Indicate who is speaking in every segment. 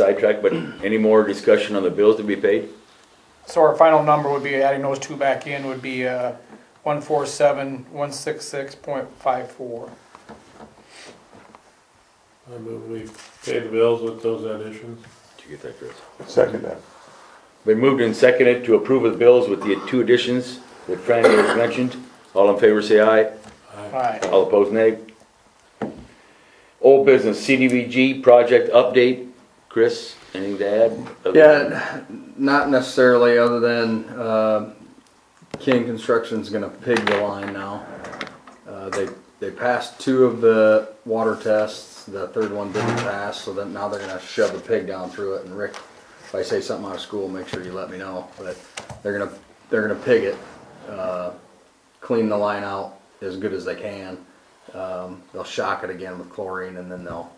Speaker 1: sidetrack, but any more discussion on the bills to be paid?
Speaker 2: So our final number would be, adding those two back in, would be uh, one four seven, one six six point five four.
Speaker 3: I move we pay the bills with those additions.
Speaker 1: Did you get that, Chris?
Speaker 4: Second that.
Speaker 1: Been moved and seconded to approve of the bills with the two additions that Franny has mentioned. All in favor, say aye.
Speaker 2: Alright,
Speaker 1: All opposed, nay. Old business, CDVG project update. Chris, anything to add?
Speaker 5: Yeah, not necessarily, other than uh, King Construction's gonna pig the line now. Uh, They, they passed two of the water tests, the third one didn't pass, so then now they're gonna shove a pig down through it. And Rick, if I say something out of school, make sure you let me know, but they're gonna, they're gonna pig it. uh, Clean the line out as good as they can. Um, They'll shock it again with chlorine and then they'll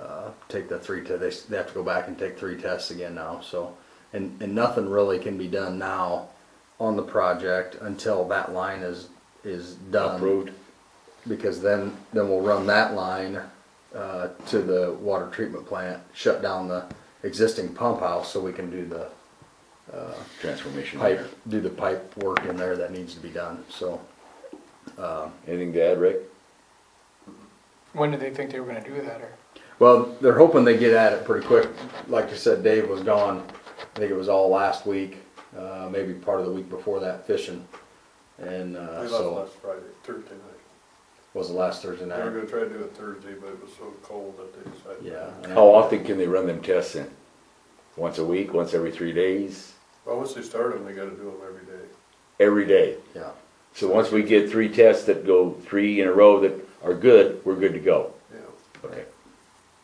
Speaker 5: uh, take the three, te- they, s- they have to go back and take three tests again now, so. And, and nothing really can be done now on the project until that line is, is done.
Speaker 1: Approved.
Speaker 5: Because then, then we'll run that line, uh, to the water treatment plant, shut down the existing pump house so we can do the
Speaker 1: Transformation.
Speaker 5: pipe, do the pipe work in there that needs to be done, so.
Speaker 1: Anything to add, Rick?
Speaker 2: when did they think they were gonna do that, or?
Speaker 5: Well, they're hoping they get at it pretty quick. Like I said, Dave was gone. I think it was all last week, uh, maybe part of the week before that fishing. And, uh,
Speaker 6: We left
Speaker 5: so,
Speaker 6: last Friday, Thursday night.
Speaker 5: was the last Thursday
Speaker 6: They were
Speaker 5: night.
Speaker 6: gonna try to do it Thursday, but it was so cold that they decided.
Speaker 5: Yeah.
Speaker 1: How often can they run them tests in? Once a week, once every three days,
Speaker 6: Well, once they start them, they gotta do them every day.
Speaker 1: every day?
Speaker 5: Yeah.
Speaker 1: So once we get three tests that go three in a row that are good, we're good to go.
Speaker 6: Yeah,
Speaker 1: Okay.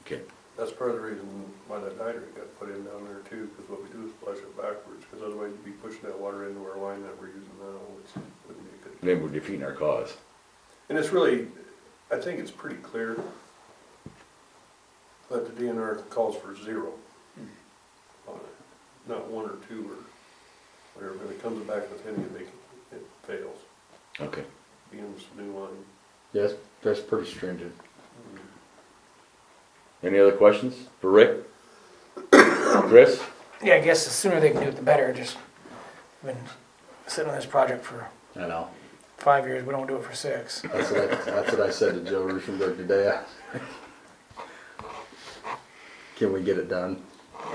Speaker 1: Okay.
Speaker 6: that's part of the reason why that hydrant got put in down there too, because what we do is flush it backwards, because otherwise you'd be pushing that water into our line that we're using now, which wouldn't be good.
Speaker 1: Then we're defeating our cause.
Speaker 6: And it's really, I think it's pretty clear that the DNR calls for zero on it, not one or two or whatever. If it comes back with any, they, can- it fails,
Speaker 1: Okay.
Speaker 6: being this new line.
Speaker 5: Yes, that's pretty stringent.
Speaker 1: Any other questions for Rick? Chris?
Speaker 2: Yeah, I guess the sooner they can do it, the better, just, I've been sitting on this project for
Speaker 5: I know.
Speaker 2: five years, we don't do it for six.
Speaker 5: That's what I, that's what I said to Joe Ruschenberg today. Can we get it done?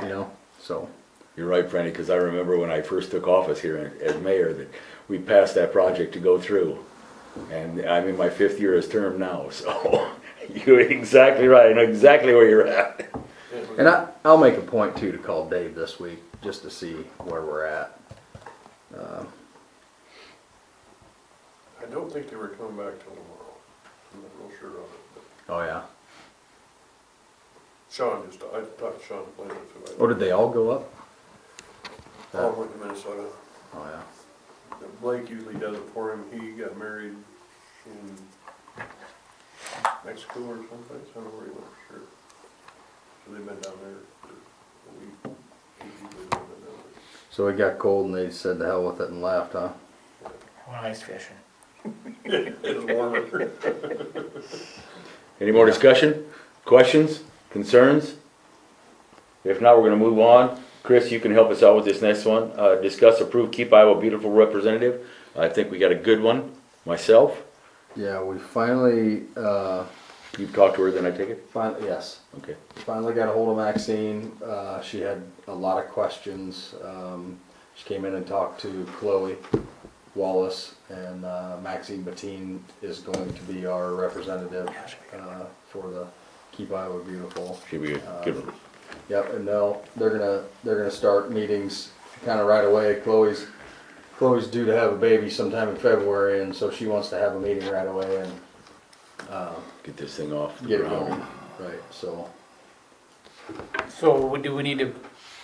Speaker 5: You know, so.
Speaker 1: You're right, Franny, because I remember when I first took office here as mayor that we passed that project to go through. And I'm in my fifth year as term now, so you're exactly right. I know exactly where you're at.
Speaker 5: And I, I'll make a point too to call Dave this week, just to see where we're at.
Speaker 6: I don't think they were coming back till tomorrow. I'm not real sure on it. but
Speaker 5: Oh, yeah.
Speaker 6: Sean just, I talked to Sean Plante.
Speaker 5: Oh, did they all go up?
Speaker 6: All went to Minnesota.
Speaker 5: Oh, yeah.
Speaker 6: Blake usually does it for him. He got married in Mexico or someplace. I don't know where he went for sure. So they've been down there for a week. He's usually been down there.
Speaker 5: So it got cold and they said to hell with it and left, huh?
Speaker 2: When ice fishing.
Speaker 6: It was warmer.
Speaker 1: Any more discussion? Questions? Concerns? If not, we're gonna move on. Chris, you can help us out with this next one. Uh, discuss approve Keep Iowa Beautiful representative. I think we got a good one, myself.
Speaker 5: Yeah, we finally, uh,
Speaker 1: You've talked to her, then I take it?
Speaker 5: finally, yes,
Speaker 1: Okay.
Speaker 5: finally got a hold of Maxine. Uh, she had a lot of questions. Um, she came in and talked to Chloe Wallace, and uh, Maxine Mateen is going to be our representative uh, for the Keep Iowa Beautiful.
Speaker 1: Should we
Speaker 5: Uh,
Speaker 1: give her?
Speaker 5: Yep, and they'll, they're gonna, they're gonna start meetings kind of right away. Chloe's, Chloe's due to have a baby sometime in February, and so she wants to have a meeting right away and
Speaker 1: Get this thing off the
Speaker 5: get it
Speaker 1: ground.
Speaker 5: going. Right, so,
Speaker 2: So we- do we need to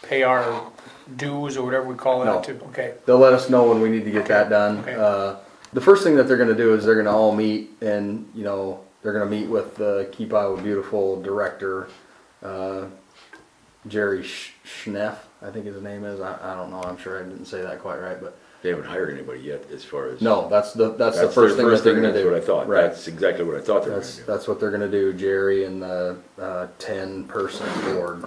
Speaker 2: pay our dues or whatever we call
Speaker 5: No.
Speaker 2: it to, okay,
Speaker 5: they'll let us know when we need to get that done.
Speaker 2: Okay.
Speaker 5: Uh, the first thing that they're gonna do is they're gonna all meet and, you know, they're gonna meet with the Keep Iowa Beautiful Director, uh, Jerry Sch- Schneff, I think his name is. I, I don't know, I'm sure I didn't say that quite right, but
Speaker 1: They haven't hired anybody yet as far as.
Speaker 5: no, that's the, that's the
Speaker 1: That's
Speaker 5: first
Speaker 1: their
Speaker 5: thing that they're gonna
Speaker 1: that's
Speaker 5: do.
Speaker 1: what I thought.
Speaker 5: Right.
Speaker 1: That's exactly what I thought they were
Speaker 5: That's,
Speaker 1: gonna do.
Speaker 5: that's what they're gonna do, Jerry and the, uh, ten person board